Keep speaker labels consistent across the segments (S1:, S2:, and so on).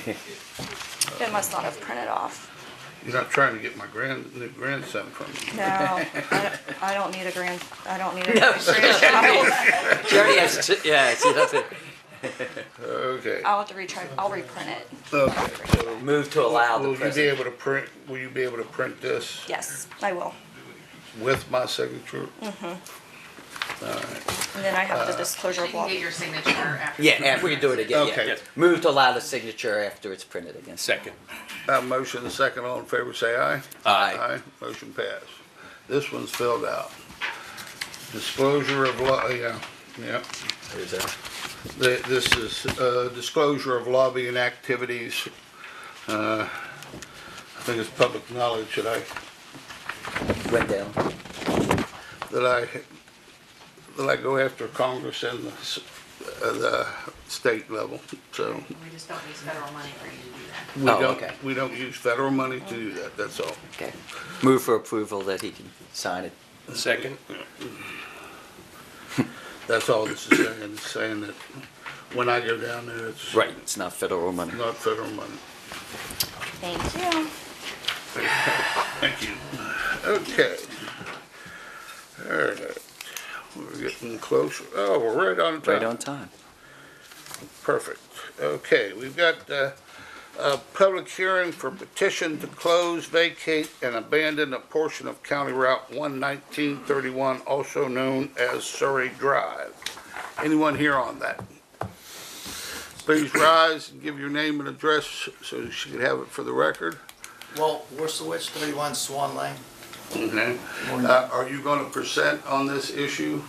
S1: They must not have printed off.
S2: You're not trying to get my grand, new grandson from me.
S1: No, I don't- I don't need a grand, I don't need a grandchild.
S3: She already has two, yeah, she has it.
S2: Okay.
S1: I'll have to retry, I'll reprint it.
S2: Okay. so
S3: Move to allow the
S2: Will you be
S3: president.
S2: able to print, will you be able to print this
S1: Yes, I will.
S2: with my signature?
S1: Mm.
S2: Alright,
S1: And then I have the disclosure
S4: You can
S1: block.
S4: get your signature after.
S3: Yeah, after we do it again,
S2: Okay.
S3: yeah.
S2: Yes.
S3: Move to allow the signature after it's printed again.
S5: Second.
S2: Uh, motion and second, all in favor, say aye.
S5: Aye.
S2: Aye, motion passed. This one's filled out. Disclosure of law, oh, yeah, yeah.
S3: There's a-
S2: The- This is uh, disclosure of lobbying activities. Uh, I think it's public knowledge that I
S3: Went down.
S2: that I, that I go after Congress and the, s- uh, the state level, so.
S4: We just don't use federal money for you to do that.
S2: we
S3: Oh,
S2: don't-
S3: okay.
S2: We don't use federal money to do that, that's all.
S3: Okay. Move for approval that he can sign it.
S5: Second.
S2: That's all this is saying, it's saying that when I go down there, it's
S3: Right. It's not federal money.
S2: not federal money.
S1: Thank you.
S2: Thank you. Okay. All right, we're getting closer. Oh, we're right on time.
S3: Right on time.
S2: Perfect. Okay, we've got uh, a public hearing for petition to close, vacate, and abandon a portion of County Route 11931, also known as Surrey Drive. Anyone here on that? Please rise and give your name and address so she can have it for the record.
S6: Well, we're switched 31 Swan Lane.
S2: Okay. Uh, Are you going to present on this issue?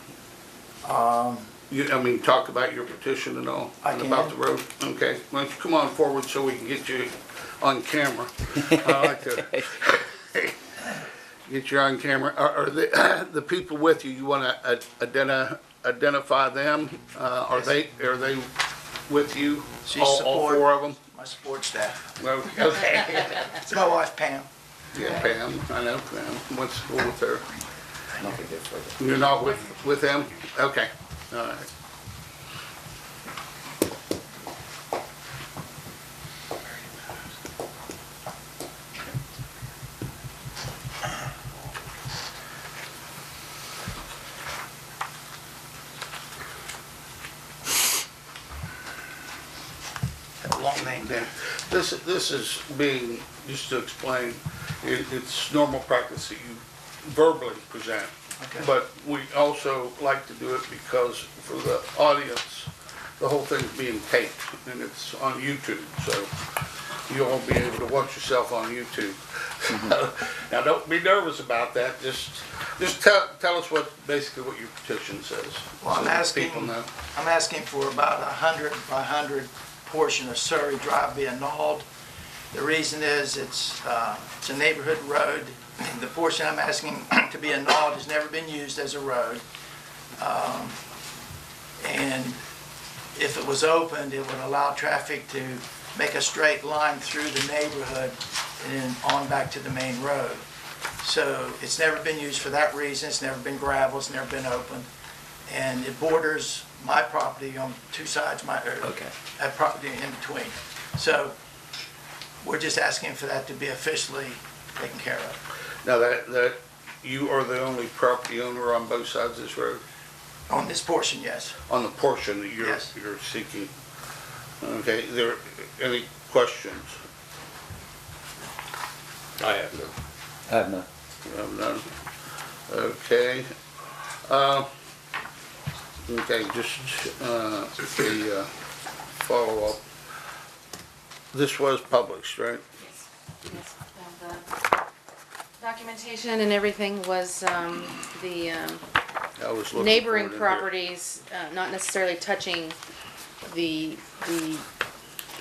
S6: Um,
S2: You, I mean, talk about your petition and all?
S6: I
S2: and About the
S6: can.
S2: road? Okay, why don't you come on forward so we can get you on camera? I like to get you on camera. Are, are the, the people with you, you want to identi- identify them? Uh, Are they, are they with you?
S6: She
S2: All- All four of them?
S6: My support staff.
S2: Okay.
S6: It's my wife Pam.
S2: Yeah, Pam, I know Pam. What's the school with her?
S3: Nothing good for it.
S2: You're not with, with them? Okay, all right.
S6: That long name
S2: Yeah. This, this is being, just to explain, it, it's normal practice that you verbally present.
S6: Okay.
S2: But we also like to do it because for the audience, the whole thing's being taped and it's on YouTube, so you'll all be able to watch yourself on YouTube. Now, don't be nervous about that, just, just tell, tell us what, basically what your petition says.
S6: Well, I'm
S2: so that
S6: asking-
S2: People know.
S6: I'm asking for about a hundred by hundred portion of Surrey Drive be annulled. The reason is it's, uh, it's a neighborhood road. The portion I'm asking to be annulled has never been used as a road. Um, And if it was opened, it would allow traffic to make a straight line through the neighborhood and then on back to the main road. So it's never been used for that reason. It's never been gravel. It's never been opened. And it borders my property on two sides, my, or
S3: Okay.
S6: that property in between. So we're just asking for that to be officially taken care of.
S2: Now, that, that, you are the only property owner on both sides of this road?
S6: On this portion, yes.
S2: on the portion that you're,
S6: Yes.
S2: you're seeking. Okay, there, any questions?
S5: I have no.
S3: I have no.
S2: You have none? Okay. Uh, Okay, just uh, the uh, follow-up. This was published, right?
S4: Yes, and the Documentation and everything was, um, the, um,
S2: I was looking for it
S4: neighboring
S2: in here.
S4: properties, uh, not necessarily touching the, the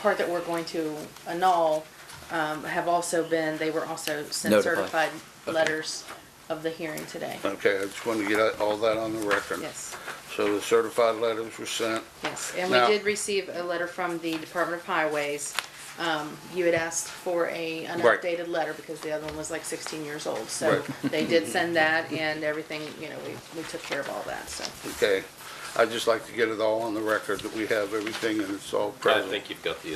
S4: part that we're going to annul, um, have also been, they were also sent
S3: Notified.
S4: certified letters of the hearing today.
S2: Okay, I just wanted to get all that on the record.
S4: Yes,
S2: So the certified letters were sent.
S4: yes. And we
S2: Now-
S4: did receive a letter from the Department of Highways. Um, you had asked for a, an
S2: Right.
S4: updated letter because the other one was like sixteen years old. So
S2: Right.
S4: they did send that and everything, you know, we, we took care of all that, so.
S2: Okay, I'd just like to get it all on the record that we have everything and it's all
S5: I
S2: present.
S5: think you've got the